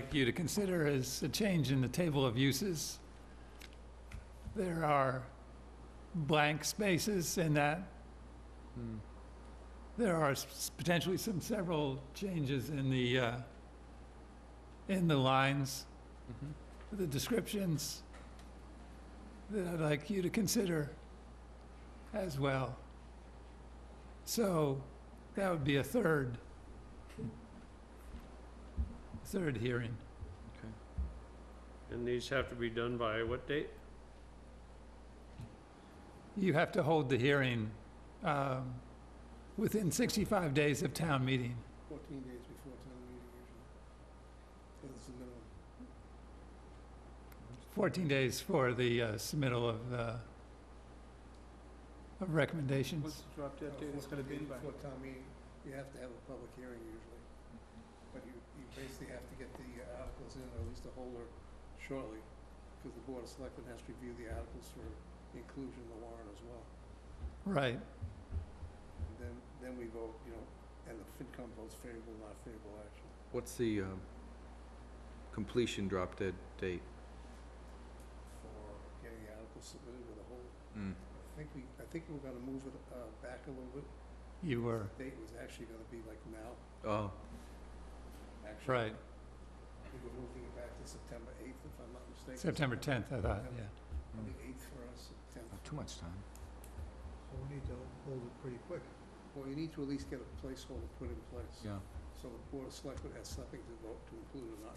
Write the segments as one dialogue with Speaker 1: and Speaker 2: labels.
Speaker 1: like you to consider is a change in the table of uses. There are blank spaces in that.
Speaker 2: Hmm.
Speaker 1: There are s- potentially some several changes in the, uh, in the lines,
Speaker 2: Mhm.
Speaker 1: the descriptions that I'd like you to consider as well. So that would be a third, third hearing.
Speaker 3: And these have to be done by what date?
Speaker 1: You have to hold the hearing um, within 65 days of town meeting.
Speaker 4: 14 days before town meeting usually. That's the minimum.
Speaker 1: 14 days for the uh, submittal of, uh, of
Speaker 2: What's
Speaker 1: recommendations.
Speaker 2: the drop
Speaker 4: Uh,
Speaker 2: dead date it's
Speaker 4: 14
Speaker 2: gonna be
Speaker 4: days
Speaker 2: by?
Speaker 4: Before town meeting, you have to have a public hearing usually. But you, you basically have to get the uh, articles in, or at least a holder shortly, because the board of selectmen has to review the articles for inclusion in the warrant as well.
Speaker 1: Right,
Speaker 4: And then, then we vote, you know, and the FinCom votes favorable, not favorable action.
Speaker 2: What's the um, completion drop dead date?
Speaker 4: for getting the article submitted with a hold.
Speaker 2: Mm.
Speaker 4: I think we, I think we're gonna move it, uh, back a little bit.
Speaker 1: you were,
Speaker 4: The Date was actually gonna be like now,
Speaker 2: Oh,
Speaker 4: actually.
Speaker 1: right,
Speaker 4: We were moving it back to September eighth, if I'm not mistaken.
Speaker 1: September 10th, I thought, yeah.
Speaker 4: On the eighth for us, tenth.
Speaker 2: not too much time.
Speaker 4: So we need to hold it pretty quick. Well, you need to at least get a placeholder put in place.
Speaker 2: Yeah.
Speaker 4: So the board of selectmen has something to vote to include or not.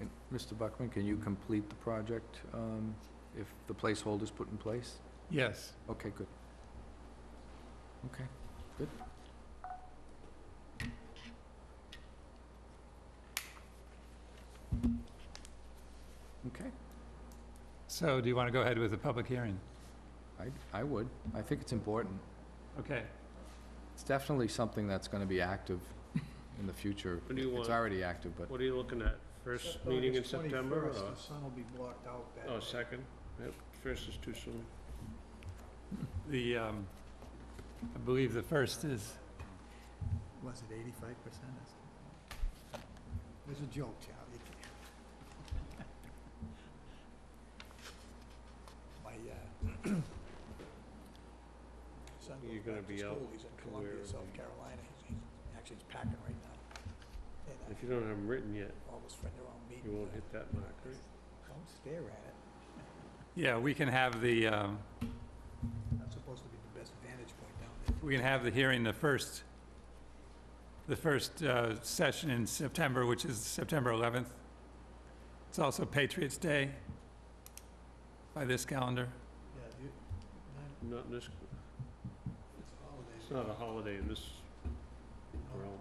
Speaker 2: And Mr. Buckman, can you complete the project um, if the placeholder's put in place?
Speaker 1: Yes,
Speaker 2: Okay, good. Okay, good. Okay,
Speaker 1: so do you want to go ahead with the public hearing?
Speaker 2: I, I would. I think it's important.
Speaker 1: Okay,
Speaker 2: It's definitely something that's gonna be active in the future.
Speaker 3: What do you
Speaker 2: It's
Speaker 3: want?
Speaker 2: already active, but
Speaker 3: What are you looking at? First meeting in September or?
Speaker 4: sun will be blocked out back.
Speaker 3: Oh, second? Yep, first is too soon.
Speaker 1: the, um, I believe the first is,
Speaker 4: Was it eighty-five percent? It's a joke, Charlie. My, uh, son
Speaker 3: You're
Speaker 4: goes
Speaker 3: gonna
Speaker 4: back to
Speaker 3: be out
Speaker 4: school, he's in
Speaker 3: to
Speaker 4: Columbia,
Speaker 3: where
Speaker 4: South
Speaker 3: the-
Speaker 4: Carolina, he's, he's- actually he's packing right now. And uh,
Speaker 3: If you don't have them written yet,
Speaker 4: I always friend around meeting. uh,
Speaker 3: you won't hit that mark, right?
Speaker 4: Don't stare at it,
Speaker 1: yeah, we can have the, um,
Speaker 4: that's supposed to be the best vantage point down there.
Speaker 1: we can have the hearing the first, the first uh, session in September, which is September 11th. It's also Patriots' Day by this calendar.
Speaker 4: Yeah, you,
Speaker 3: Not in this,
Speaker 4: it's holidays.
Speaker 3: it's not a holiday in this realm.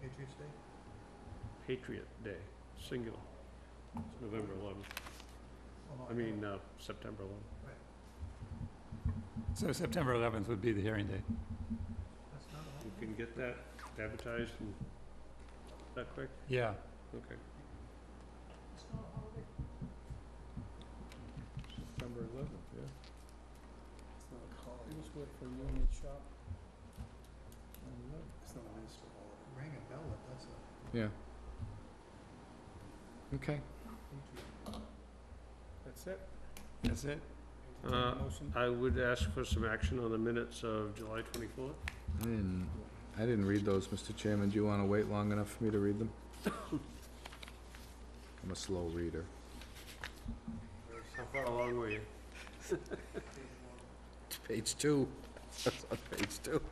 Speaker 4: Patriots Day?
Speaker 3: Patriot Day, singular. It's November 11th. I mean, uh, September 11th.
Speaker 1: So September 11th would be the hearing date.
Speaker 4: That's not a
Speaker 3: You can get that advertised and that quick?
Speaker 1: Yeah.
Speaker 3: Okay.
Speaker 4: It's not a holiday.
Speaker 3: September 11th, yeah.
Speaker 4: It's not a holiday. It was good for Union Shop. It's not a municipal holiday. Rang a bell, that's a.
Speaker 2: yeah. Okay,
Speaker 4: That's it?
Speaker 1: That's it?
Speaker 3: Uh,
Speaker 4: Motion?
Speaker 3: I would ask for some action on the minutes of July 24th.
Speaker 2: I
Speaker 3: Uh,
Speaker 2: didn't, I didn't read those, Mr. Chairman. Do you wanna wait long enough for me to read them? I'm a slow reader.
Speaker 3: How far along were you?
Speaker 2: Page two. That's on page two.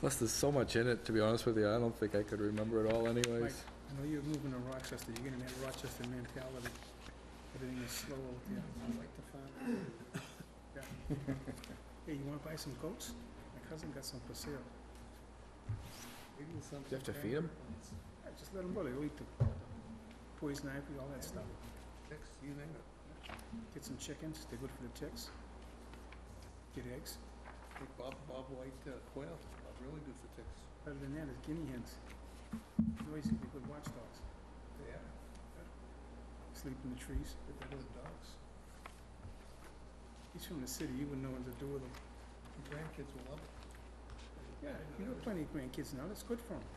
Speaker 2: Plus, there's so much in it, to be honest with you, I don't think I could remember it all anyways.
Speaker 4: I know you're moving to Rochester, you're getting that Rochester mentality. Everything is slow out there. I like to find. Yeah. Hey, you wanna buy some goats? My cousin got some for sale. Maybe it's something.
Speaker 2: you have to feed 'em?
Speaker 4: Yeah, just let them go, they'll eat the poison ivy, all that stuff. Chicks, you name it. Get some chickens, they're good for the chicks. Get eggs. Bob, Bob White quail, really good for ticks. Better than that is guinea hens. Noisy, they're good watchdogs. They are. Sleep in the trees. But they're good dogs. He's from the city, you wouldn't know what to do with them. Grandkids will love it. Yeah, you got plenty of grandkids now, that's good for them.